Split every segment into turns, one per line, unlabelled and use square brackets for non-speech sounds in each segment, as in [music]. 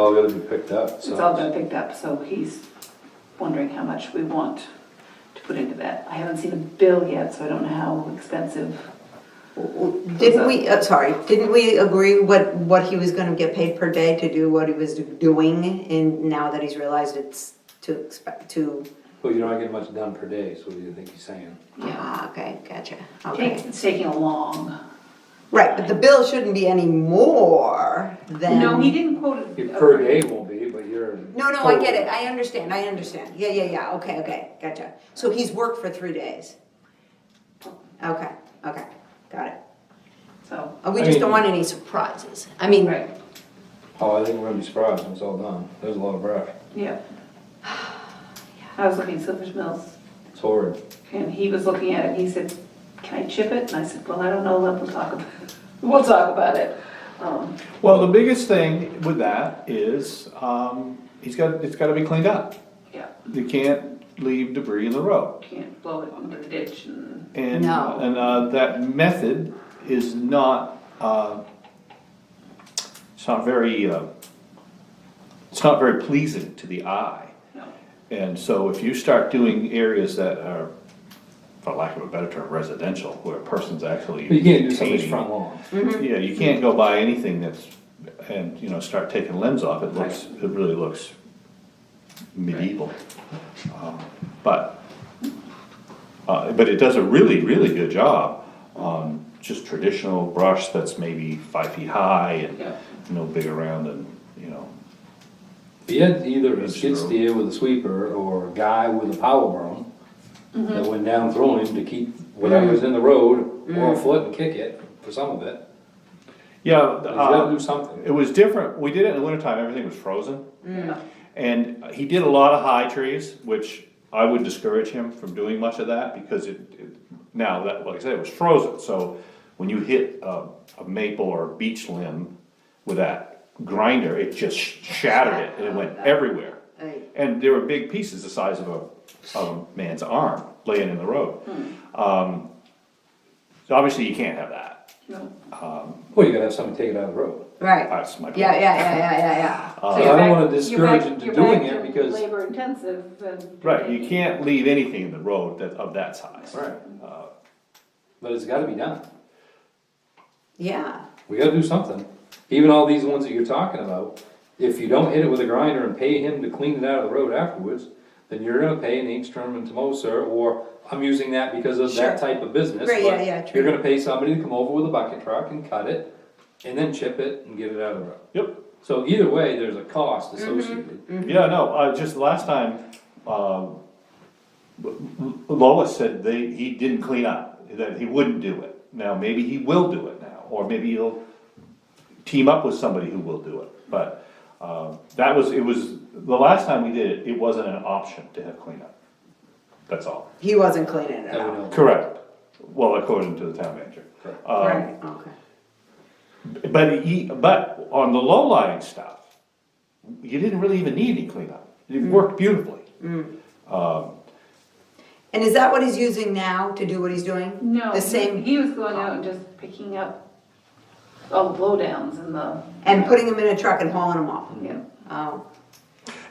all gotta be picked up,
It's all
so.
been picked up, so he's wondering how much we want to put into that. I haven't seen a bill yet, so I don't know how expensive.
Didn't we, uh, sorry, didn't we agree what, what he was gonna get paid per day to do what he was doing? And now that he's realized it's too exp too,
Well, you're not getting much done per day, so what do you think he's saying?
ah, okay, gotcha,
Take-
okay.
It's taking a long.
Right, but the bill shouldn't be any more than.
No, he didn't quote
Your
it.
per day won't be, but you're.
No, no, I get it, I understand, I understand, yeah, yeah, yeah, okay, okay, gotcha. So he's worked for three days? Okay, okay, got it.
So,
Uh, We
I
just don't
mean-
want any surprises, I mean,
right,
Oh, I think we're gonna be surprised when it's all done. There's a lot of brush.
yeah. I was looking at Silver's Mills,
It's horrid.
and he was looking at it, and he said, can I chip it? And I said, well, I don't know, let, we'll talk about, [laughs] we'll talk about it. Um,
Well, the biggest thing with that is, um, he's got, it's gotta be cleaned up.
Yeah,
You can't leave debris in the road.
can't blow it into the ditch and,
And,
No.
and, uh, that method is not, uh, it's not very, uh, it's not very pleasing to the eye.
no,
And so if you start doing areas that are, for lack of a better term, residential, where a person's actually.
But you can't do somebody's
maintaining-
front lawn.
Yeah, you can't go buy anything that's, and, you know, start taking limbs off, it looks, it really looks medieval. Um, But, uh, but it does a really, really good job on just traditional brush that's maybe five feet high
Yeah.
and no big around and, you know,
If you had either a skid steer with a sweeper or a guy with a power broom
Mm-hmm.
that went down throwing him to keep
Mm.
whatever's in the road or a foot and kick it for some of it.
yeah.
But You
uh,
gotta do something.
It was different, we did it in the wintertime, everything was frozen.
yeah.
And he did a lot of high trees, which I would discourage him from doing much of that, because it, it- now that, like I said, it was frozen, so when you hit a, a maple or a beech limb with that grinder, it just shattered it, and it went everywhere.
Right.
And there were big pieces the size of a, of a man's arm laying in the road. Um, So obviously you can't have that,
no.
Well, you gotta have somebody take it out of the road.
uh, right,
that's my point.
yeah, yeah, yeah, yeah, yeah, yeah.
So
So
you're
I don't
back-
wanna
you're
discourage
back-
him to
you're
doing
back
it
to
because.
Labor intensive and.
Right, you can't leave anything in the road that, of that size.
Right. Uh, But it's gotta be done.
Yeah,
We gotta do something. Even all these ones that you're talking about, if you don't hit it with a grinder and pay him to clean it out of the road afterwards, then you're gonna pay an Angstrom and Tomoser, or I'm using that because of that
Sure.
type of business.
Right, yeah,
but
yeah, true.
You're gonna pay somebody to come over with a bucket truck and cut it, and then chip it and get it out of the road.
Yep.
So either way, there's a cost
Mm-hmm.
associated.
Yeah, no, uh, just last time, um, Lois said they, he didn't clean up, that he wouldn't do it. Now, maybe he will do it now, or maybe he'll team up with somebody who will do it, but, um, that was, it was, the last time we did it, it wasn't an option to have cleanup. That's all.
he wasn't cleaning it
that we know.
up.
Correct. Well, according to the town manager.
Correct.
Um,
Right, okay.
But he, but on the low lying stuff, you didn't really even need any cleanup, it worked beautifully.
And is that what he's using now to do what he's doing?
No,
The
he,
same,
he was going out and just picking up all the blowdowns and the,
and putting him in a truck and hauling him off?
yeah,
Oh,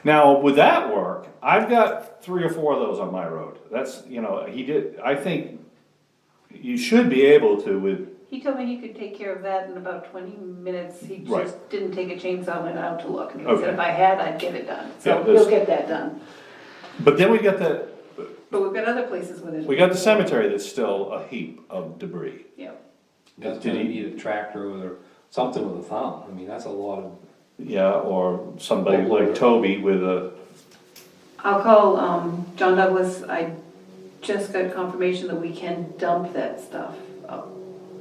Now, with that work, I've got three or four of those on my road. That's, you know, he did, I think you should be able to with,
he told me he could take care of that in about twenty minutes, he
Right.
just didn't take a chainsaw, went out to look, and he said,
Okay.
if I had, I'd get it done,
Yeah,
so
there's-
he'll get that done.
but then we got the,
But we've got other places where there's.
we got the cemetery that's still a heap of debris.
Yeah,
That's
Did
gonna
he-
need a tractor or something with a thumb. I mean, that's a lot of,
Yeah, or somebody like Toby with a,
I'll call, um, John Douglas, I just got confirmation that we can dump that stuff up,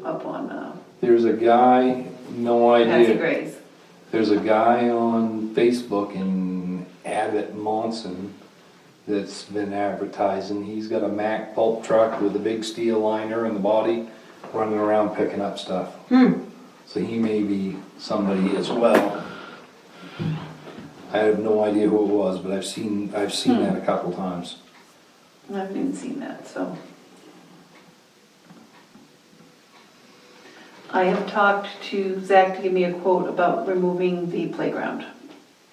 up on, uh,
there's a guy, no idea.
Patsy Gray's.
There's a guy on Facebook in Abbott Monson that's been advertising. He's got a Mack pulp truck with a big steel liner in the body, running around picking up stuff. So he may be somebody as well. I have no idea who it was, but I've seen, I've seen that a couple times.
I haven't even seen that, so. I have talked to Zach to give me a quote about removing the playground.